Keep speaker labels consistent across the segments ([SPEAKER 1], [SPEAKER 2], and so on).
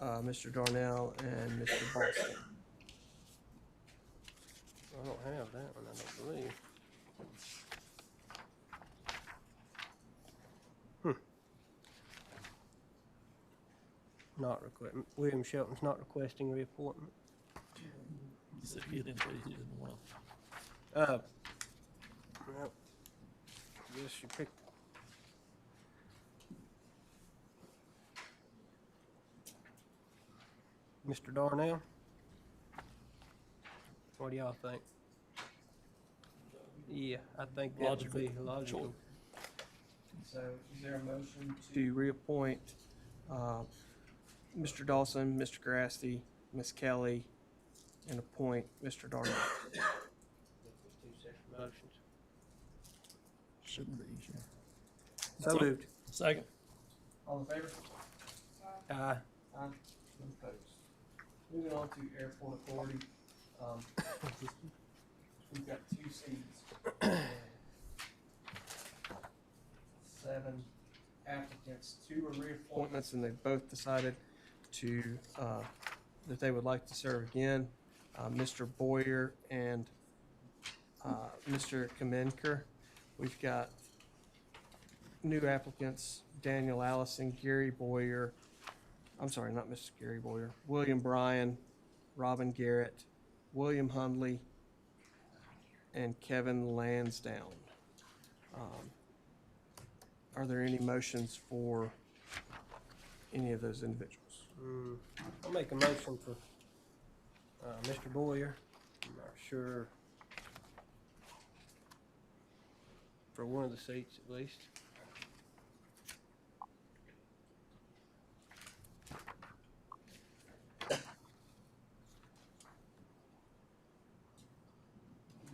[SPEAKER 1] uh, Mr. Darnell and Mr. Boston.
[SPEAKER 2] I don't have that one, I don't believe. Hmm. Not requ- William Shelton's not requesting reappointment.
[SPEAKER 3] He said he didn't, he didn't want to.
[SPEAKER 2] Uh, well, guess you pick. Mr. Darnell? What do y'all think? Yeah, I think that would
[SPEAKER 3] Logical
[SPEAKER 2] be logical.
[SPEAKER 1] So is there a motion to? reappoint, uh, Mr. Dawson, Mr. Grassi, Ms. Kelly, and appoint Mr. Darnell.
[SPEAKER 2] Motions.
[SPEAKER 3] Shouldn't be. sure.
[SPEAKER 2] So moved.
[SPEAKER 3] Second.
[SPEAKER 1] All in favor?
[SPEAKER 2] Aye.
[SPEAKER 1] Aye. None opposed. Moving on to airport authority, um, we've got two seats. Seven applicants, two are reappointments, and they both decided to, uh, that they would like to serve again. Uh, Mr. Boyer and, uh, Mr. Kamenker. We've got new applicants, Daniel Allison, Gary Boyer, I'm sorry, not Mr. Gary Boyer, William Bryan, Robin Garrett, William Hundley, and Kevin Lansdowne. Um, Are there any motions for any of those individuals?
[SPEAKER 2] Mm, I'll make a motion for, uh, Mr. Boyer, I'm not sure. For one of the seats at least.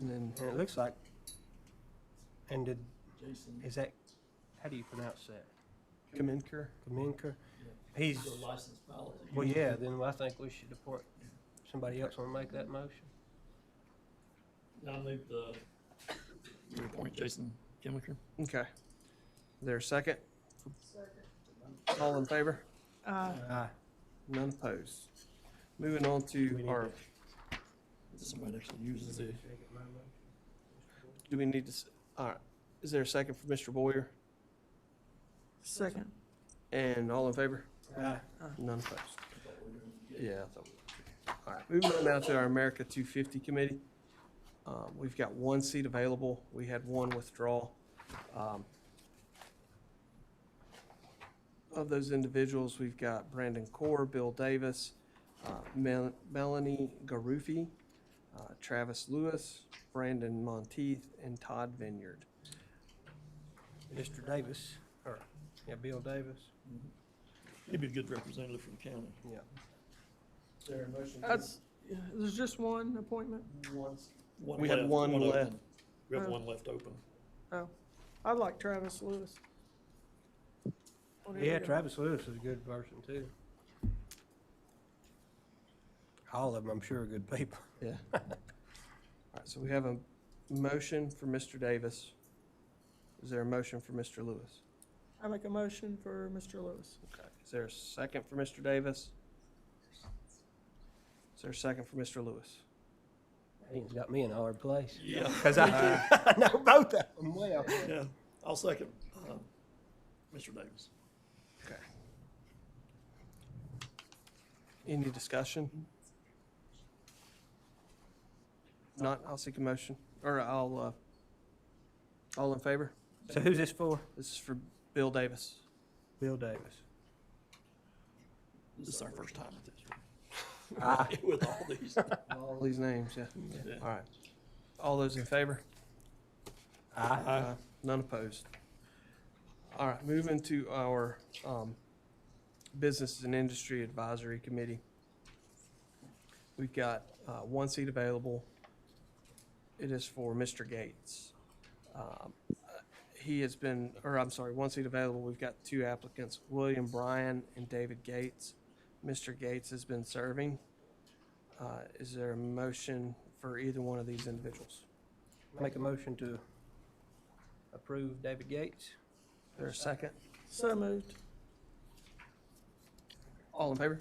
[SPEAKER 1] And then,
[SPEAKER 2] And it looks like, and did,
[SPEAKER 3] Jason,
[SPEAKER 2] is that, how do you pronounce that?
[SPEAKER 1] Kamenker,
[SPEAKER 2] Kaminka? He's,
[SPEAKER 3] he's a licensed pilot.
[SPEAKER 2] well, yeah, then I think we should deport, somebody else wanna make that motion?
[SPEAKER 3] I moved the, you appoint Jason Kimmicker.
[SPEAKER 1] okay. Is there a second? All in favor?
[SPEAKER 4] Uh,
[SPEAKER 2] Aye.
[SPEAKER 1] None opposed. Moving on to our,
[SPEAKER 3] Somebody actually uses it.
[SPEAKER 1] do we need to, s- all right, is there a second for Mr. Boyer?
[SPEAKER 4] second.
[SPEAKER 1] And all in favor?
[SPEAKER 2] Aye.
[SPEAKER 1] None opposed. Yeah. I thought we- All right, moving on now to our America 250 Committee. Um, We've got one seat available. We had one withdrawal. Um, Of those individuals, we've got Brandon Core, Bill Davis, uh, Mel- Melanie Garufi, uh, Travis Lewis, Brandon Monteith, and Todd Vineyard.
[SPEAKER 2] Mr. Davis, or, yeah, Bill Davis.
[SPEAKER 3] He'd be a good representative for the county.
[SPEAKER 1] Is there a motion?
[SPEAKER 4] That's, yeah, there's just one appointment?
[SPEAKER 3] One
[SPEAKER 1] We had
[SPEAKER 3] left,
[SPEAKER 1] one
[SPEAKER 3] open.
[SPEAKER 1] left.
[SPEAKER 3] We have
[SPEAKER 4] Oh.
[SPEAKER 3] one left open.
[SPEAKER 4] Oh, I like Travis Lewis. Whatever
[SPEAKER 2] Yeah,
[SPEAKER 4] you-
[SPEAKER 2] Travis Lewis is a good person too. All of them, I'm sure, are good people.
[SPEAKER 1] Yeah. All right, so we have a motion for Mr. Davis. Is there a motion for Mr. Lewis?
[SPEAKER 4] I make a motion for Mr. Lewis.
[SPEAKER 1] Okay. Is there a second for Mr. Davis? Is there a second for Mr. Lewis?
[SPEAKER 2] He's got me in a hard place.
[SPEAKER 3] Yeah.
[SPEAKER 2] Cause I, I know both of them well.
[SPEAKER 3] Yeah, I'll second, uh, Mr. Davis.
[SPEAKER 1] Any discussion? Not, I'll seek a motion, or I'll, uh, all in favor?
[SPEAKER 2] So who's this for?
[SPEAKER 1] This is for Bill Davis.
[SPEAKER 2] Bill Davis.
[SPEAKER 3] This is our first time with this.
[SPEAKER 2] Ah.
[SPEAKER 3] right? With all these.
[SPEAKER 1] All these names, yeah.
[SPEAKER 3] Yeah.
[SPEAKER 1] All right. All those in favor?
[SPEAKER 2] Aye.
[SPEAKER 1] Aye. Uh, None opposed. All right, moving to our um, Business and Industry Advisory Committee. We've got uh, one seat available. It is for Mr. Gates. Um, He has been, or I'm sorry, one seat available. We've got two applicants, William Bryan and David Gates. Mr. Gates has been serving. Uh, Is there a motion for either one of these individuals?
[SPEAKER 2] Make a motion to approve David Gates.
[SPEAKER 1] Is there a second?
[SPEAKER 4] So moved.
[SPEAKER 1] All in favor?